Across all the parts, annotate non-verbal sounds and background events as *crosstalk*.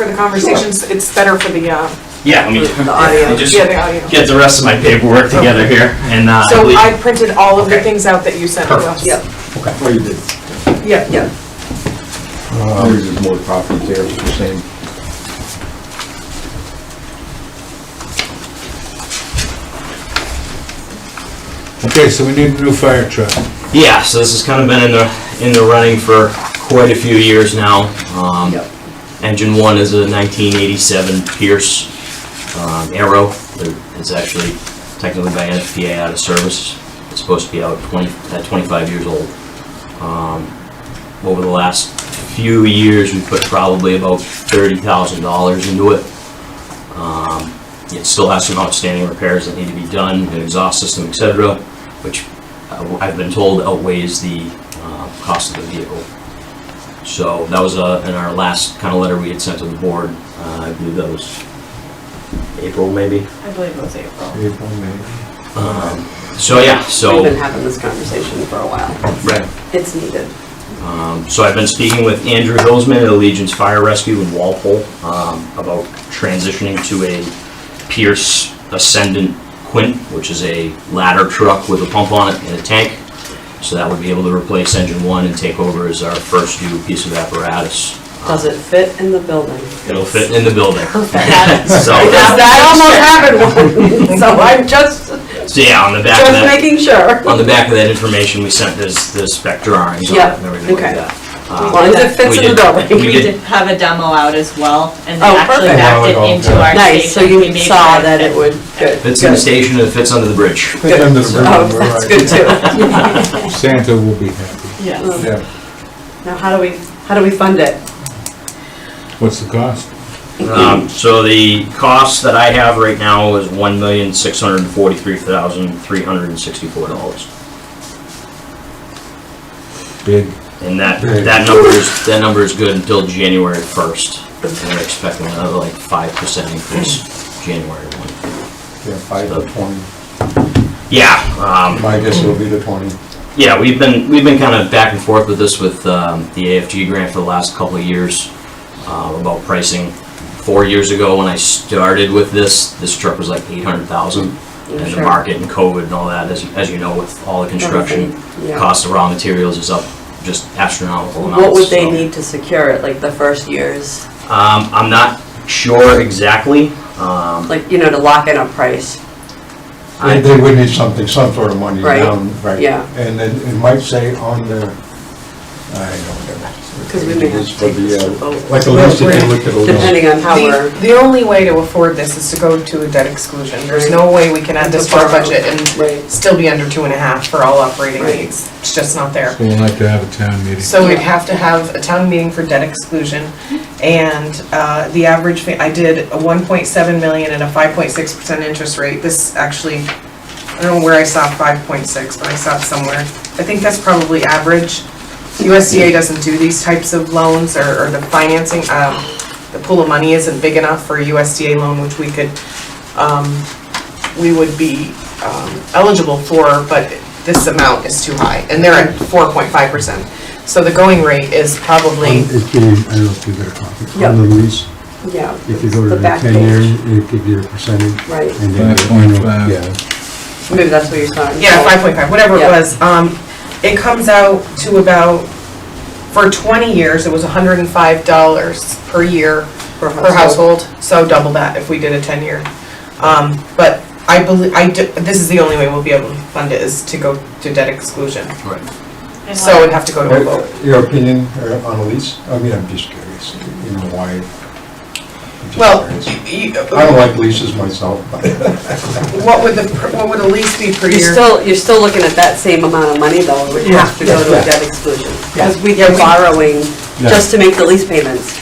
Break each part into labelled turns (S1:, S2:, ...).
S1: For the conversations, it's better for the, uh,
S2: Yeah, let me
S1: the audio.
S2: I just
S1: Oh, Yeah, the audio.
S2: get the rest of my paperwork together here, and uh, I
S1: So
S2: believe-
S1: I printed all of the
S2: Okay.
S1: things out that you sent to us.
S3: Yep,
S4: Well, you did.
S1: Yep,
S3: yep.
S4: There's just more copies there, it's the same.
S5: Okay, so we need a new fire truck.
S2: yeah. So this has kind of been in the in the running for quite a few years now. Um,
S3: Yep.
S2: Engine one is a 1987 Pierce um, Arrow. There- It's actually technically by NFPA out of service. It's supposed to be out 20 at 25 years old. Um, over the last few years, we put probably about $30,000 into it. Um, It still has some outstanding repairs that need to be done, an exhaust system, et cetera, which uh, I've been told outweighs the uh, cost of the vehicle. So that was uh, in our last kind of letter we had sent to the board. Uh, I believe that was April, maybe.
S1: I believe it was April.
S2: Um, So, yeah,
S3: We've been
S2: so,
S3: having this conversation for a while.
S2: right.
S3: It's needed.
S2: Um, So I've been speaking with Andrew Hillsman at Allegiance Fire Rescue in Walpole um, about transitioning to a Pierce Ascendant Quint, which is a ladder truck with a pump on it and a tank. So that would be able to replace engine one and take over as our first new piece of apparatus.
S3: Does it fit in the building?
S2: It'll fit in the building. *laughs*
S3: That
S2: So,
S3: that almost happened *laughs* one, so I'm just,
S2: so yeah, on the back of
S3: just
S2: that,
S3: making sure.
S2: on the back of that information, we sent this, the Spectre drawings on it
S3: Yeah,
S2: and everything like
S3: okay.
S2: that.
S3: As
S2: Um,
S3: long as it fits
S2: we
S3: in the
S2: did-
S3: building.
S2: We
S6: We
S2: did
S6: did have a demo out as well, and they
S3: Oh,
S6: actually
S3: perfect.
S6: backed it into our station.
S3: Nice, so
S6: We
S3: you
S6: made
S3: saw
S6: sure
S3: that it would, good.
S2: Fits in the
S3: good.
S2: station and it fits under the bridge.
S3: Oh, that's good too.
S5: Santa will be happy.
S6: Yes.
S5: Yeah.
S3: Now, how do we, how do we fund it?
S5: What's the cost?
S2: Um, so the cost that I have right now is one million, six hundred and forty-three thousand, three hundred and sixty-four dollars.
S5: Big.
S2: And that, that number is, that number is good until January first. And they're expecting another like five percent increase January one.
S4: Yeah, five to twenty.
S2: Yeah, um,
S4: My guess will be the twenty.
S2: Yeah, we've been, we've been kind of back and forth with this with um, the AFG grant for the last couple of years uh, about pricing. Four years ago, when I started with this, this truck was like eight hundred thousand. And the
S3: Mm-hmm. Sure.
S2: market and COVID and all that, as, as you know, with all the construction,
S3: Everything, yeah.
S2: cost of raw materials is up just astronomical amounts.
S3: What would they
S2: so-
S3: need to secure it, like the first years?
S2: Um, I'm not sure exactly. Um,
S3: Like, you know, to lock in a price?
S2: I-
S4: They they would need something, some sort of money
S3: Right,
S4: down, right?
S3: yeah.
S4: And then it might say on the, I don't know.
S3: Because we may have to
S4: For
S3: take
S4: the,
S3: this
S4: uh,
S3: to vote,
S4: Like a list, if you look at a list.
S3: depending on how we're.
S1: The, the only way to afford this is to go to a debt exclusion. There's
S3: Right.
S1: no way we can add this to our
S3: Borrow.
S1: budget and
S3: Right.
S1: still be under two and a half for all operating
S3: Right.
S1: needs. It's just not there.
S5: So we'll have to have a town meeting.
S1: So we'd have to have a town meeting for debt exclusion, and uh, the average, fa- I did a 1.7 million and a 5.6% interest rate. This actually, I don't know where I saw 5.6, but I saw it somewhere. I think that's probably average. USDA doesn't do these types of loans, or or the financing, um, the pool of money isn't big enough for a USDA loan, which we could, um, we would be um, eligible for, but this amount is too high, and they're at 4.5%. So the going rate is probably,
S7: It's getting, I don't know if you got a copy,
S3: Yep.
S7: on the lease,
S3: Yeah.
S7: if you go to
S3: the
S7: the
S3: back
S7: ten year, it gives you a percentage.
S3: Right.
S7: and then
S5: Five
S7: you- you know,
S5: point five.
S7: Yeah.
S3: page. Maybe that's what you're saying.
S1: yeah, 5.5, whatever it
S3: Yeah.
S1: was. Um, It comes out to about, for 20 years, it was $105 per year
S3: Per
S1: per
S3: household.
S1: household, so double that if we did a 10-year. Um, But I believe, I, d- this is the only way we'll be able to fund it, is to go to debt exclusion.
S2: Right.
S6: And
S1: So it'd have to go to a vote.
S4: What- Your opinion uh, on a lease? I mean, I'm just curious, you know, why? I'm just
S1: Well,
S4: curious.
S1: You-
S4: I don't like leases myself, but.
S1: What would the, per- what would the lease be per year?
S3: You're still, you're still looking at that same amount of money though, would
S4: Yeah,
S3: have to go to
S4: yeah,
S3: a debt exclusion.
S4: yeah.
S3: Because we
S1: Yeah,
S3: are
S1: we-
S3: borrowing
S4: Yeah.
S3: just to make the lease payments,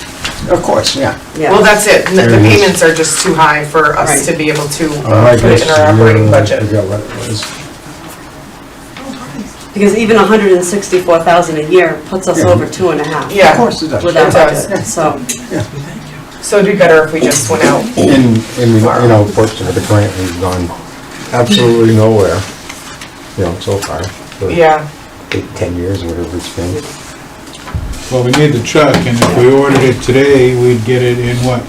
S4: Of course, yeah.
S3: yeah.
S1: Well, that's it, the the
S4: There it is.
S1: payments are just too high for us
S3: Right.
S1: to be able to
S4: Uh,
S1: uh,
S4: my
S1: put
S4: guess
S1: it
S4: is
S1: in our
S4: the year,
S1: operating
S4: uh, I
S1: budget.
S4: forgot what it was.
S3: Because even a hundred and sixty-four thousand a year puts us
S4: Yeah.
S3: over two and a half.
S1: Yeah.
S4: Of course it does.
S3: With our
S1: It does.
S3: budget, so,
S1: So it'd be better if we just went out.
S4: And, and, you know, fortunately, the grant has gone absolutely nowhere, you know, so far. for
S1: Yeah,
S4: Eight, ten years, or whatever it's been.
S5: Well, we need the truck, and if we ordered it today, we'd get it in what,